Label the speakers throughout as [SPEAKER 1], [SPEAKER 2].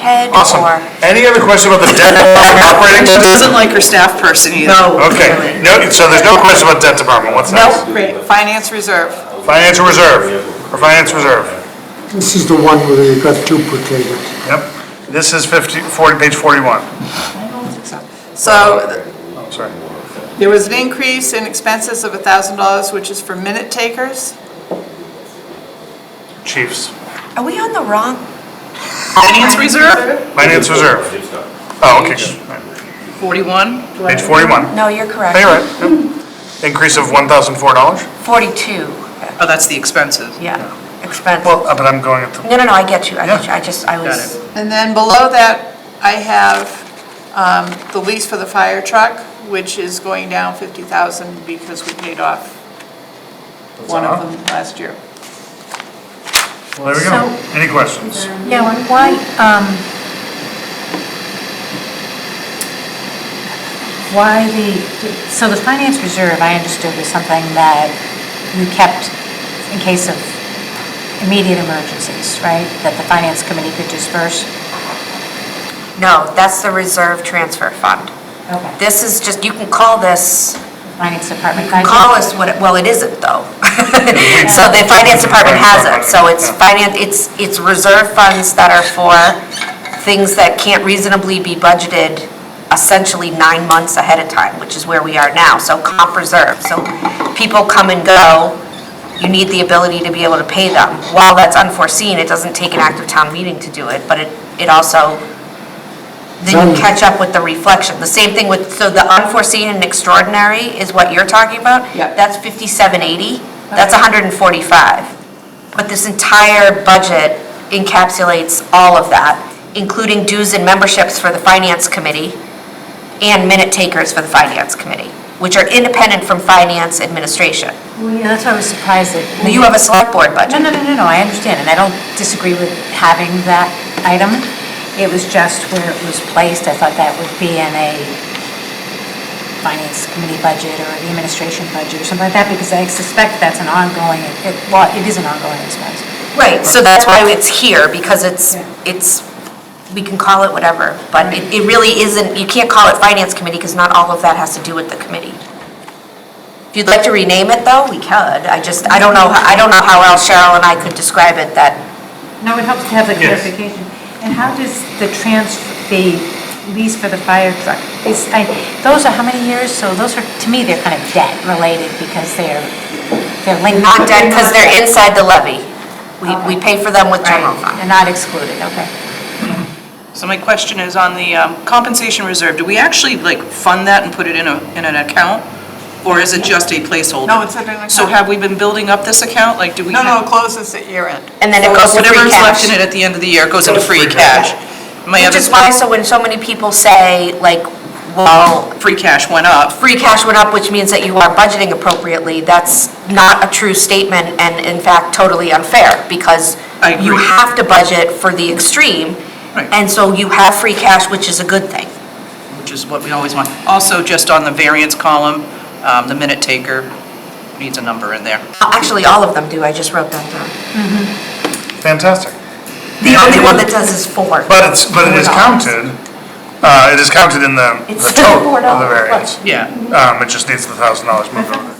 [SPEAKER 1] head
[SPEAKER 2] Awesome.
[SPEAKER 1] or?
[SPEAKER 2] Any other question about the debt department operating?
[SPEAKER 3] She
[SPEAKER 2] budget?
[SPEAKER 3] doesn't like her staff person either.
[SPEAKER 2] Okay, no, so there's no question about debt department, what's next?
[SPEAKER 3] Nope, finance reserve.
[SPEAKER 2] Financial reserve, or finance reserve,
[SPEAKER 4] This is the one where you got duplicated.
[SPEAKER 2] yep. This is 50, 40, page 41,
[SPEAKER 3] So
[SPEAKER 2] oh, sorry.
[SPEAKER 3] there was an increase in expenses of $1,000, which is for minute takers.
[SPEAKER 2] Chiefs,
[SPEAKER 1] Are we on the wrong?
[SPEAKER 3] Finance reserve?
[SPEAKER 2] finance reserve. Oh, okay,
[SPEAKER 3] Forty-one.
[SPEAKER 2] page 41.
[SPEAKER 1] No, you're correct.
[SPEAKER 2] Hey, you're right, yep. Increase of $1,004?
[SPEAKER 1] Forty-two,
[SPEAKER 3] Oh, that's the expenses.
[SPEAKER 1] yeah, expense.
[SPEAKER 2] Well, uh, but I'm going at the,
[SPEAKER 1] No, no, no, I get you, I get
[SPEAKER 2] Yeah.
[SPEAKER 1] you, I just, I
[SPEAKER 2] Got
[SPEAKER 1] was,
[SPEAKER 3] And then below that, I have um, the lease for the fire truck, which is going down 50,000 because we paid off one of them last year.
[SPEAKER 2] well, there we go. Any questions?
[SPEAKER 5] Yeah, and why, um, why the, so the finance reserve, I understood was something that you kept in case of immediate emergencies, right? That the finance committee could disperse?
[SPEAKER 1] no, that's the reserve transfer fund.
[SPEAKER 5] Okay.
[SPEAKER 1] This is just, you can call this,
[SPEAKER 5] Finance department.
[SPEAKER 1] you can call us what, it- well, it isn't though. So the finance department has it, so it's finance, it's, it's reserve funds that are for things that can't reasonably be budgeted essentially nine months ahead of time, which is where we are now, so comp reserve. So people come and go, you need the ability to be able to pay them. While that's unforeseen, it doesn't take an active town meeting to do it, but it, it also then you catch up with the reflection. The same thing with, so the unforeseen and extraordinary is what you're talking about?
[SPEAKER 3] Yeah.
[SPEAKER 1] That's 5780, that's 145. But this entire budget encapsulates all of that, including dues and memberships for the finance committee and minute takers for the finance committee, which are independent from finance administration.
[SPEAKER 5] Well, yeah, that's why I was surprised that.
[SPEAKER 1] You have a select board
[SPEAKER 5] No,
[SPEAKER 1] budget.
[SPEAKER 5] no, no, no, no, I understand, and I don't disagree with having that item. It was just where it was placed, I thought that would be in a finance committee budget or the administration budget or something like that, because I suspect that's an ongoing, it- well, it is an ongoing expense.
[SPEAKER 1] Right, so that's why it's here, because it's, it's, we can call it whatever, but it, it really isn't, you can't call it finance committee, because not all of that has to do with the committee. If you'd like to rename it, though, we could, I just, I don't know, I don't know how else Cheryl and I could describe it, that
[SPEAKER 5] No, it helps to have the
[SPEAKER 2] Yes.
[SPEAKER 5] clarification. And how does the trans, the lease for the fire truck, is, I, those are how many years? So those are, to me, they're kind of debt related because they're, they're linked.
[SPEAKER 1] not done, because they're inside the levy. We, we pay for them with general
[SPEAKER 5] Right,
[SPEAKER 1] fund.
[SPEAKER 5] They're not excluded, okay.
[SPEAKER 3] So my question is on the um, compensation reserve, do we actually like fund that and put it in a, in an account? Or is it just a placeholder?
[SPEAKER 6] No, it's in an account.
[SPEAKER 3] So have we been building up this account? Like, do we?
[SPEAKER 6] No, no, it
[SPEAKER 3] have-
[SPEAKER 6] closes at year end.
[SPEAKER 1] And then it goes to
[SPEAKER 3] Whatever
[SPEAKER 1] free
[SPEAKER 3] is left in
[SPEAKER 1] cash.
[SPEAKER 3] it at the end of the year goes into free cash. My
[SPEAKER 1] Which
[SPEAKER 3] other,
[SPEAKER 1] is why, so when so many people say, like, well,
[SPEAKER 3] free cash went up.
[SPEAKER 1] free cash went up, which means that you are budgeting appropriately, that's not a true statement and in fact totally unfair because
[SPEAKER 3] I agree.
[SPEAKER 1] you have to budget for the extreme.
[SPEAKER 3] Right.
[SPEAKER 1] And so you have free cash, which is a good thing.
[SPEAKER 3] which is what we always want. Also, just on the variance column, um, the minute taker needs a number in there.
[SPEAKER 1] Actually, all of them do, I just wrote that down.
[SPEAKER 2] Fantastic.
[SPEAKER 1] The only one that does is four.
[SPEAKER 2] But it's, but it is counted, uh, it is counted in the
[SPEAKER 1] It's
[SPEAKER 2] the
[SPEAKER 1] still four
[SPEAKER 2] total of the
[SPEAKER 1] dollars, look.
[SPEAKER 2] variance.
[SPEAKER 3] Yeah.
[SPEAKER 2] Um, It just needs the thousand dollars moved over.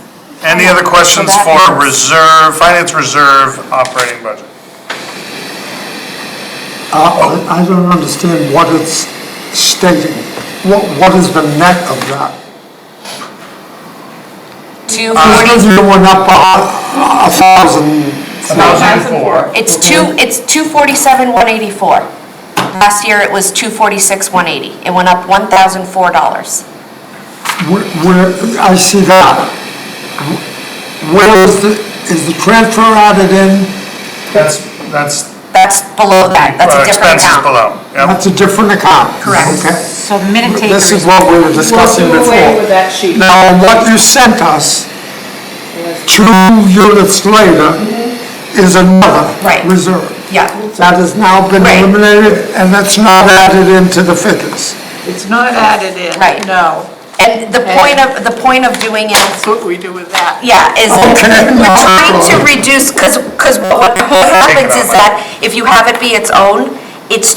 [SPEAKER 2] Any other questions
[SPEAKER 5] that
[SPEAKER 2] for
[SPEAKER 5] helps.
[SPEAKER 2] reserve, finance reserve, operating budget?
[SPEAKER 4] Uh, I I don't understand what it's stating. What, what is the net of that?
[SPEAKER 1] Two
[SPEAKER 4] Because
[SPEAKER 1] forty,
[SPEAKER 4] you went up a, a thousand,
[SPEAKER 1] it's two, it's two forty-seven, one eighty-four. Last year it was two forty-six, one eighty. It went up one thousand four dollars.
[SPEAKER 4] where, where- I see that. Where is the, is the transfer added in?
[SPEAKER 2] That's, that's
[SPEAKER 1] That's below that, that's
[SPEAKER 2] uh,
[SPEAKER 1] a different account.
[SPEAKER 2] expenses below. Yep.
[SPEAKER 4] That's a different account.
[SPEAKER 1] Correct.
[SPEAKER 4] Okay.
[SPEAKER 5] So the minute taker
[SPEAKER 4] This
[SPEAKER 5] is
[SPEAKER 4] is what we were discussing before.
[SPEAKER 3] that sheet.
[SPEAKER 4] Now, what you sent us, two units later, is another
[SPEAKER 1] Mm-hmm. Right.
[SPEAKER 4] reserve.
[SPEAKER 1] Yeah.
[SPEAKER 4] That has now been
[SPEAKER 1] Right.
[SPEAKER 4] eliminated, and that's not added into the figures.
[SPEAKER 3] It's not added in.
[SPEAKER 1] Right.
[SPEAKER 3] No.
[SPEAKER 1] And the point of, the point of doing it,
[SPEAKER 3] That's what we do with that.
[SPEAKER 1] yeah, is
[SPEAKER 4] Okay.
[SPEAKER 1] we're trying to reduce, because, because what what happens is that if you have it be its own, it's